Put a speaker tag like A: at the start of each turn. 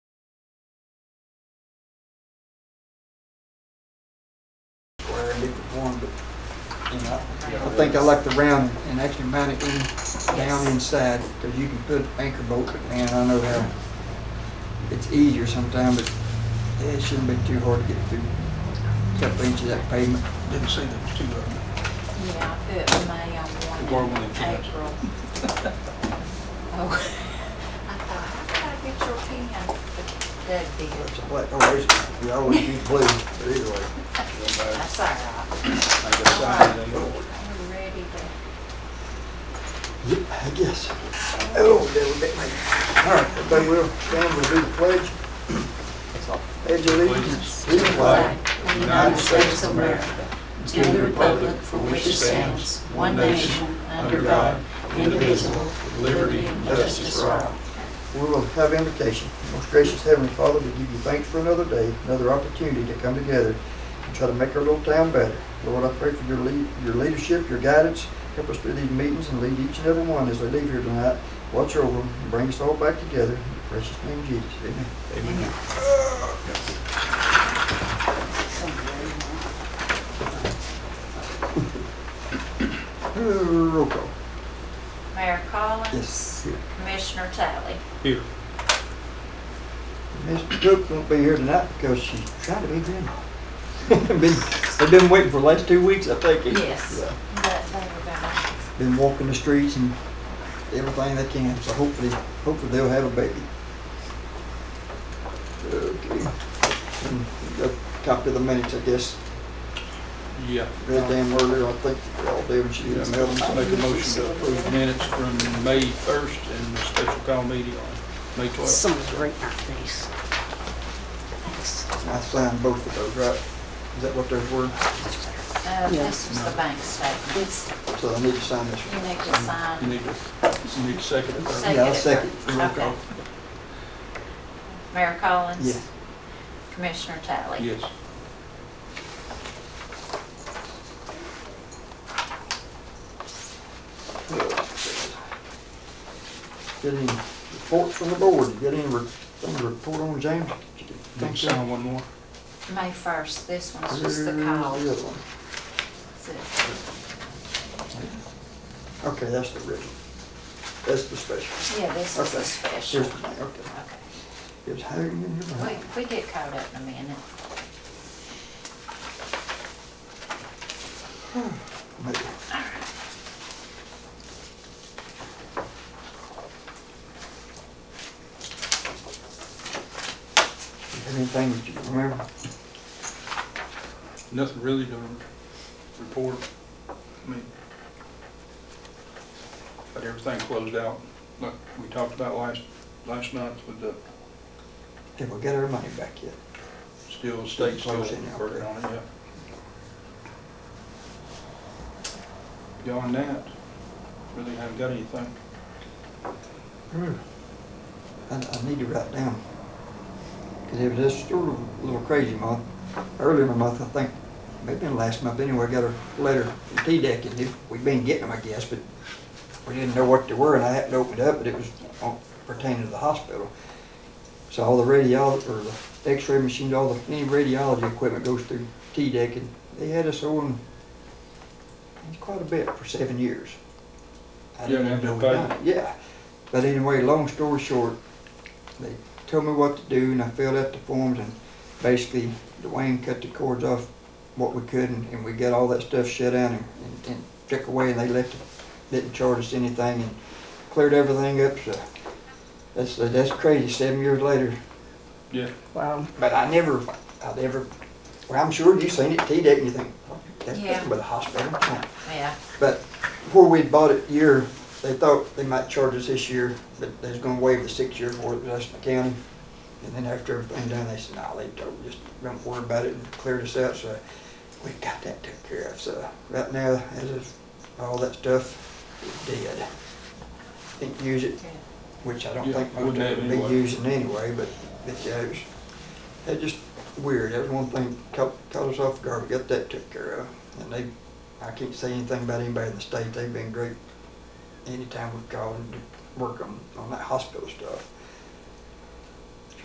A: square and different form, but, you know, I think I like the round and actually mount it in, down inside, because you can put anchor bolt, but man, I know how, it's easier sometimes, but it shouldn't be too hard to get through a couple inches of that pavement.
B: Didn't see those two of them.
C: Yeah, I put May on
B: Where
C: one
B: will
C: in
B: it finish?
C: April. Oh, I thought, how could I get your pen? But That'd be
D: It's a black oasis. Oh, We always use blue, but either way.
C: That's all right.
B: I guess I did.
C: I'm ready to.
D: Yep, I guess. Oh, that would make me. All right, everybody will stand, we'll do the pledge. Pledge allegiance to the flag
C: Flag of the United States of America, to the republic for which it stands, one nation, under God, indivisible, with liberty and justice for all.
D: we will have invocation. Most gracious Heavenly Father, we give you thanks for another day, another opportunity to come together and try to make our little town better. Lord, I pray for your lead, your leadership, your guidance. Help us through these meetings and lead each and every one as they leave here tonight. Watch over them and bring us all back together. In the precious name of Jesus, amen. Uh, Roll call.
C: Mayor Collins.
D: Yes.
C: Commissioner Tally.
B: Here,
D: Miss Cook won't be here tonight because she's trying to be grandma. Been- They've been waiting for the last two weeks, I think.
C: Yes.
D: Yeah.
C: But they were gone.
D: Been walking the streets and everything they can, so hopefully, hopefully they'll have a baby. Okay. And A copy of the minutes, I guess,
B: yeah.
D: read them earlier, I think we all did when she
B: Yeah,
D: was
B: Make
D: mailing.
B: a motion to approve minutes from May 1st and the special call meeting on May 12th.
E: Someone's right in our face. Thanks.
D: I signed both of those, right? Is that what those were?
C: Uh, this was the bank statement.
E: It's-
D: So I need to sign this
C: You
D: one.
C: need to sign.
B: You need to, you need to second it.
C: Second.
D: Yeah, I'll second. Roll
C: Okay.
D: call.
C: Mayor Collins?
D: Yes.
C: Commissioner Tally?
B: Yes.
D: Get any reports from the board, get any, re- any report on James?
B: Don't sign one more.
C: May 1st, this one's just the call.
D: Here's the other one.
C: That's it.
D: Okay, that's the original. That's the special.
C: Yeah, this is
D: Okay.
C: the special.
D: Here's the thing, okay.
C: Okay.
D: It's hanging in your
C: We,
D: mind.
C: we get caught up in a minute.
D: Maybe. You have Anything that you can remember?
B: Nothing really to report. I mean, but everything closed out, like we talked about last, last night with the,
D: Did we get our money back yet?
B: still, state still
D: Closing out
B: working
D: there.
B: on it, yeah. Beyond that, really haven't got anything.
D: Hmm. I, I need to write down. Cause it was just sort of a little crazy month. Earlier in the month, I think, maybe in the last month anyway, I got a letter from T-Dec and it- we'd been getting them, I guess, but we didn't know what they were and I happened to open it up, but it was on- pertaining to the hospital. So all the radiol, or the x-ray machines, all the, any radiology equipment goes through T-Dec and they had us on quite a bit for seven years. I
B: You
D: didn't
B: didn't have
D: know
B: to
D: we
B: pay?
D: done it. Yeah. But anyway, long story short, they told me what to do and I filled out the forms and basically Dwayne cut the cords off what we could and, and we got all that stuff shut down and, and, and took away and they left, it- didn't charge us anything and cleared everything up, so that's, that's crazy, seven years later.
B: Yeah,
E: Wow.
D: But I never, I never, well, I'm sure you've seen it, T-Dec, and you think, that's
C: Yeah.
D: nothing but a hospital.
C: Yeah,
D: But where we bought it year, they thought they might charge us this year, but they was gonna waive the six year for it, that's the county. And then after everything done, they said, nah, they told, just don't worry about it and cleared us out, so we got that took care of, so right now, as of all that stuff, is dead. Didn't use it,
C: yeah.
D: which I don't
B: Yeah,
D: think most of
B: wouldn't
D: it
B: have
D: would be
B: anyway.
D: using anyway, but, but yeah, it was, it just weird, that was one thing, caught, caught us off guard, we got that took care of. And they, I can't say anything about anybody in the state, they've been great anytime we've called to work on, on that hospital stuff.